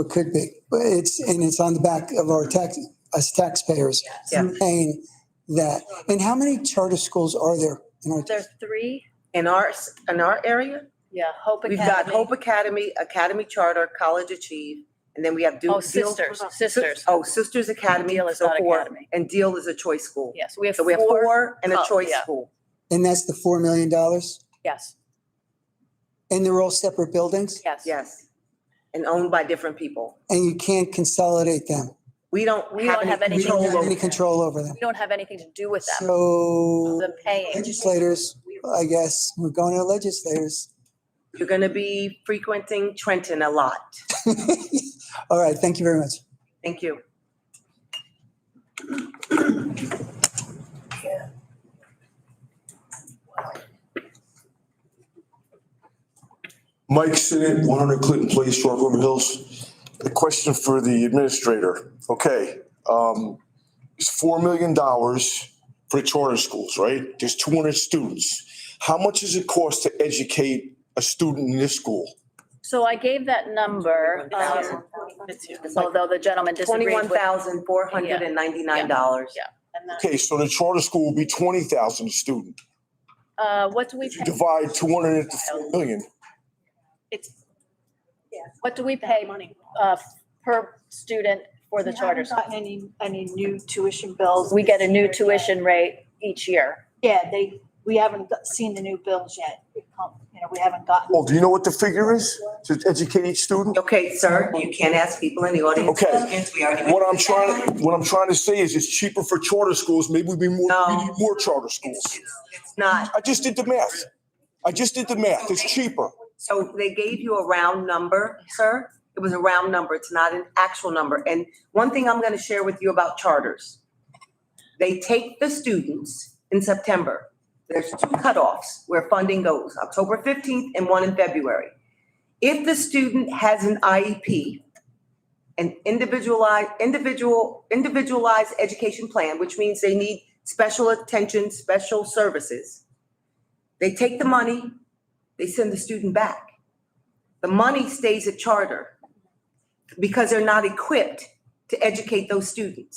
It could be, but it's, and it's on the back of our tax, us taxpayers Yeah. paying that. And how many charter schools are there in our, There's three, In our, s- in our area, yeah, Hope we've Academy. got Hope Academy, Academy Charter, College Achieve, and then we have. Duke Oh, Sisters, Sisters. Oh, Sisters Academy, Deal is so not four, academy. and Deal is a choice school. Yes, we have So we have four, four and a Oh, choice yeah. school. and that's the $4 million? yes, And they're all separate buildings? yes. Yes. And owned by different people. And you can't consolidate them? We don't We have don't have any We anything don't control have over. any them. control over them? We don't have anything to do with them, So the paying. legislators, I guess, we're going to legislators. You're going to be frequenting Trenton a lot. All right, thank you very much. Thank you. Mike Sinnet, 100 Clinton Place, Short River Hills. A question for the administrator. Okay, um, it's $4 million for charter schools, right? There's 200 students. How much does it cost to educate a student in this school? So I gave that number, um, although the gentleman disagreed with. $21,499. and then, Okay, so the charter school will be 20,000 a student. Uh, what do we If you pay, divide 200 into 4 million, what do we pay, uh, per student for the We charter haven't school? gotten Any, any new tuition bills? We get a this new year yet. tuition rate each year. Yeah, they, we haven't got- seen the new bills yet. It come- You know, we haven't gotten. well, do you know what the figure is to educate each student? Okay, sir, you can't ask people in the audience. Okay. questions. We already- What I'm trying, what I'm trying to say is it's cheaper for charter schools. Maybe we'd be more, we No. need more charter schools. It's not. I just did the math. I just did the math. It's cheaper. So they gave you a round number, sir. It was a round number. It's not an actual number. And one thing I'm going to share with you about charters. They take the students in September. There's two cutoffs where funding goes, October 15th and one in February. If the student has an IEP, an individualized, individual, individualized education plan, which means they need special attention, special services, they take the money, they send the student back. The money stays at charter because they're not equipped to educate those students.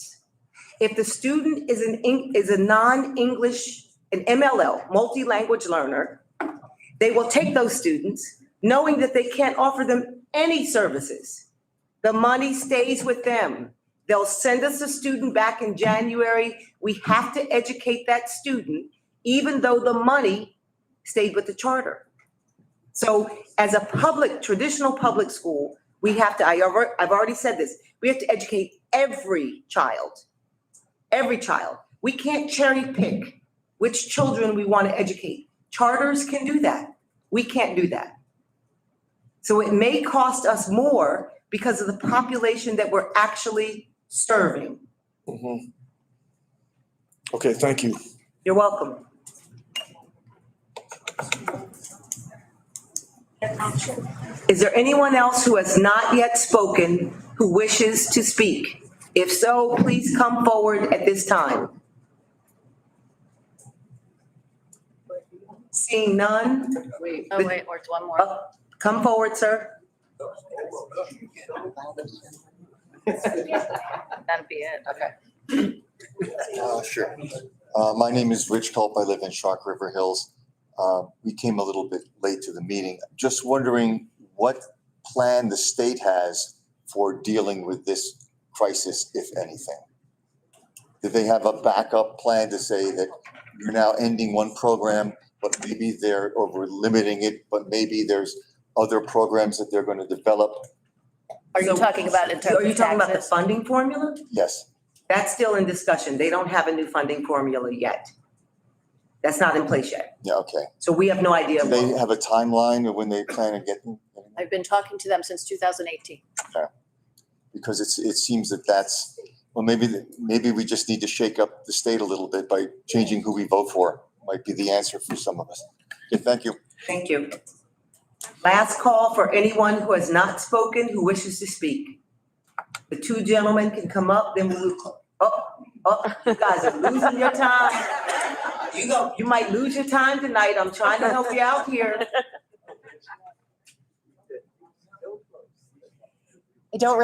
If the student is an, Eng- is a non-English, an MLL, multi-language learner, they will take those students knowing that they can't offer them any services. The money stays with them. They'll send us a student back in January. We have to educate that student, even though the money stayed with the charter. So as a public, traditional public school, we have to, I, alre- I've already said this, we have to educate every child. Every child. We can't cherry pick which children we want to educate. Charters can do that. We can't do that. So it may cost us more because of the population that we're actually serving. Mhm. Okay, thank you. You're welcome. Is there anyone else who has not yet spoken who wishes to speak? If so, please come forward at this time. Seeing none, Oh, wait, or it's one more. uh, come forward, sir. That'd be it. Uh, Sure. Uh, My name is Rich Culp. I live in Shark River Hills. Uh, We came a little bit late to the meeting. Just wondering what plan the state has for dealing with this crisis, if anything? Do they have a backup plan to say that you're now ending one program, but maybe they're over limiting it, but maybe there's other programs that they're going to develop? Are you So- talking about in terms Are you of talking about the taxes? funding formula? Yes. That's still in discussion. They don't have a new funding formula yet. That's not in place yet. Yeah, okay. So we have no idea. Do they have a timeline of when they plan on getting? I've been talking to them since 2018. because it's, it seems that that's, well, maybe, the- maybe we just need to shake up the state a little bit by changing who we vote for, might be the answer for some of us. Okay, thank you. Thank you. Last call for anyone who has not spoken, who wishes to speak. The two gentlemen can come up, then we'll, oh, oh, you guys are losing your time. You go, you might lose your time tonight. I'm trying to help you out here. I don't